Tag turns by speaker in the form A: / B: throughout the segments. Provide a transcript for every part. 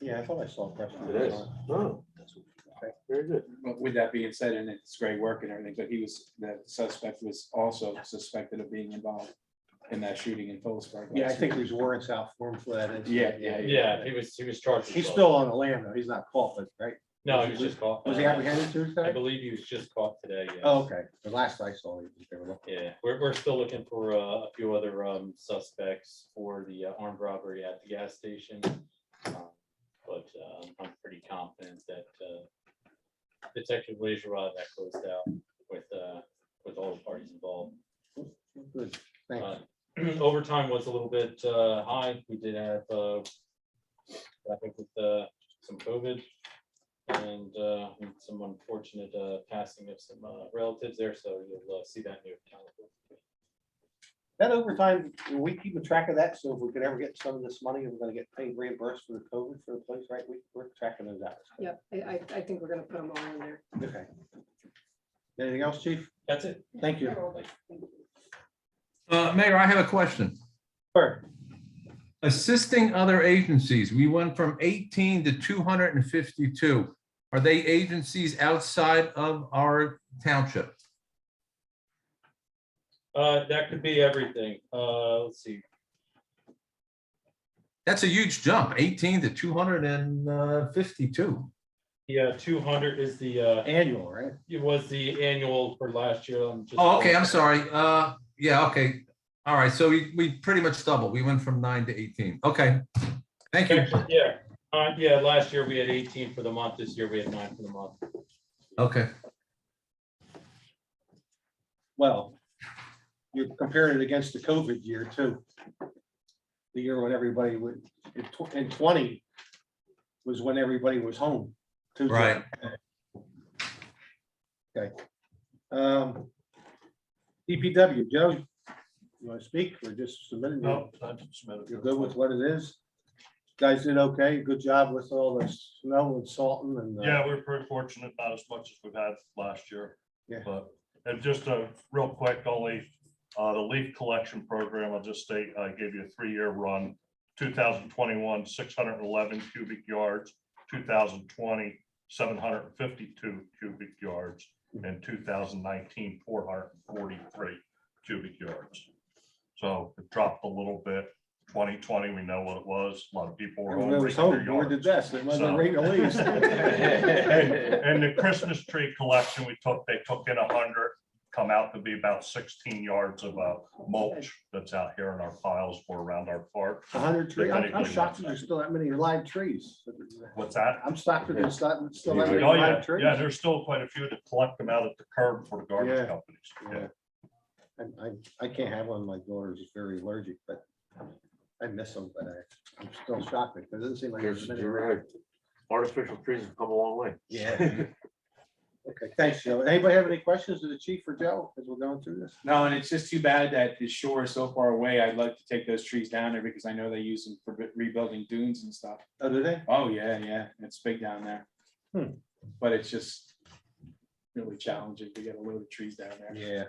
A: Yeah, I thought I saw that.
B: It is. Oh, very good.
C: But with that being said, and it's great work and everything, but he was, the suspect was also suspected of being involved in that shooting in Phillipsburg.
A: Yeah, I think there's warrants out for him for that. incident.
C: Yeah, yeah,
D: Yeah, he was, he was charged. with
A: He's
D: both.
A: still on the land, though. He's not caught, but, right?
D: No, he was just caught.
A: Was he apprehended
D: I
A: Tuesday?
D: believe he was just caught today. yes.
A: Oh, okay. The last I saw, he was there. Well,
D: Yeah, we're, we're still looking for uh, a few other um, suspects for the uh, armed robbery at the gas station. Um, But um, I'm pretty confident that uh, Detective Laserod that closed out with, uh, with all the parties involved.
A: good. Thanks.
D: Uh, Overtime was a little bit uh, high. We did have, uh, I think with uh, some COVID and uh, some unfortunate uh, passing of some uh, relatives there, so you'll uh, see that in your calendar.
A: That overtime, are we keeping track of that? So if we could ever get some of this money, we're gonna get paid reimbursed for the COVID for the place, right? We, we're tracking those hours.
E: Yep, I, I, I think we're gonna put them all in there.
A: Okay. Anything else, chief?
D: That's it.
A: Thank you.
F: Uh, Mayor, I have a question.
A: Sure.
F: Assisting other agencies, we went from 18 to 252. Are they agencies outside of our township?
D: Uh, that could be everything. Uh, let's see.
F: That's a huge jump, 18 to uh, 252.
D: Yeah, two hundred is the, uh,
A: Annual, right?
D: it was the annual for last year. I'm just-
F: Oh, okay, I'm sorry. Uh, yeah, okay. All right, so we, we pretty much doubled. We went from nine to 18. Okay. Thank you.
D: Actually, Yeah, uh, yeah, last year we had eighteen for the month. This year we had nine for the month.
F: Okay.
A: Well, you're comparing it against the COVID year too. The year when everybody would, in tw- in twenty was when everybody was home. Tuesday.
F: Right.
A: Okay. Um, DPW, Joe, you want to speak or just submitting? No. You're good with what it is? Guys did okay. Good job with all the snow and salting and. uh,
G: Yeah, we were pretty fortunate, not as much as we've had last year.
A: Yeah.
G: But, and just a real quick, only, uh, the leaf collection program, I'll just state, I gave you a three-year run. Two thousand twenty-one, six hundred and eleven cubic yards, 2020, 752 cubic yards,
A: Mm-hmm.
G: and 2019, 443 cubic yards. So it dropped a little bit. Twenty twenty, we know what it was. A lot of people were. home
A: Everybody was
G: raking their
A: home. We
G: yards.
A: did this. It wasn't
G: So-
A: raining leaves.
G: And and the Christmas tree collection, we took, they took in a hundred, come out to be about sixteen yards of uh, mulch that's out here in our piles or around our park.
A: A hundred trees. I'm I'm shocked that there's still that many live trees.
G: What's that?
A: I'm shocked that there's not, still that
G: Oh,
A: many
G: yeah,
A: live trees.
G: yeah, there's still quite a few that collect them out at the curb for the
A: Yeah.
G: garbage companies.
A: Yeah.
G: Yeah.
A: I, I, I can't have one. My daughter's very allergic, but I miss them, but I, I'm still shocked because it doesn't seem like.
B: There's,
A: there's many.
B: you're right. Artificial trees have come a long way.
A: Yeah. Okay, thanks, Joe. Anybody have any questions to the chief or Joe as we're going through this?
C: No, and it's just too bad that the shore is so far away. I'd like to take those trees down there because I know they use them for re- rebuilding dunes and stuff.
A: Oh, do they?
C: Oh, yeah, yeah, it's big down there.
A: Hmm.
C: But it's just really challenging to get a load of trees down there.
A: Yeah.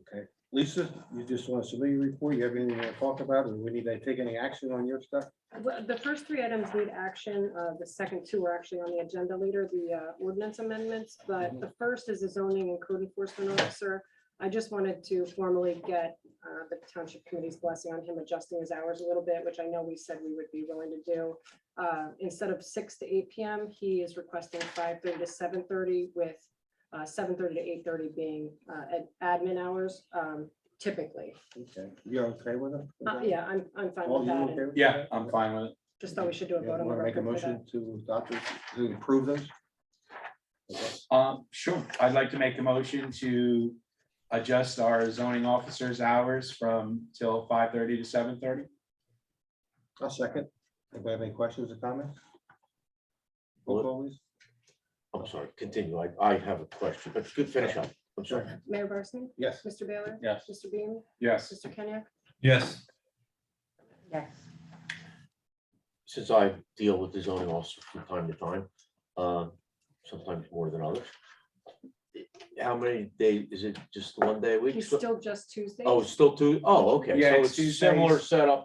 A: Okay, Lisa, you just want to submit your report? You have anything to talk about? and we need to take any action on your stuff?
E: Well, The first three items need action. Uh, the second two are actually on the agenda later, the uh, ordinance amendments. But the first is the zoning and code enforcement officer. I just wanted to formally get uh, the township committee's blessing on him adjusting his hours a little bit, which I know we said we would be willing to do. Uh, instead of six to eight PM, he is requesting five thirty to seven thirty with uh, seven thirty to eight thirty being uh, ad- admin hours um, typically.
A: Okay, you're okay with it?
E: Uh, Yeah, I'm, I'm fine
A: All
E: with
A: you
E: that.
A: okay with
C: Yeah,
A: that?
C: I'm fine with it.
E: Just thought we should do a
A: You
E: vote on the
A: Want to make a
E: record for that.
A: motion to adopt, it, to approve those?
C: Um, sure, I'd like to make a motion to adjust our zoning officers' hours from till five thirty to seven thirty.
A: I'll second. Anybody have any questions or comments? Roll call, please.
B: I'm sorry, continue. I, I have a question, but good finish up. I'm sorry.
E: Mayor Barsney?
A: Yes.
E: Mr. Baylor?
C: Yes.
E: Mr. Beam?
C: Yes,
E: Mr. Kenyek?
F: Yes.
E: Yes.
B: Since I deal with the zoning officer from time to time, uh, sometimes more than others. How many days? Is it just one day a week?
E: He's still just Tuesdays?
B: Oh, it's still two? Oh, okay.
C: Yeah,
B: So
C: it's
B: it's similar
C: Tuesdays.
B: setup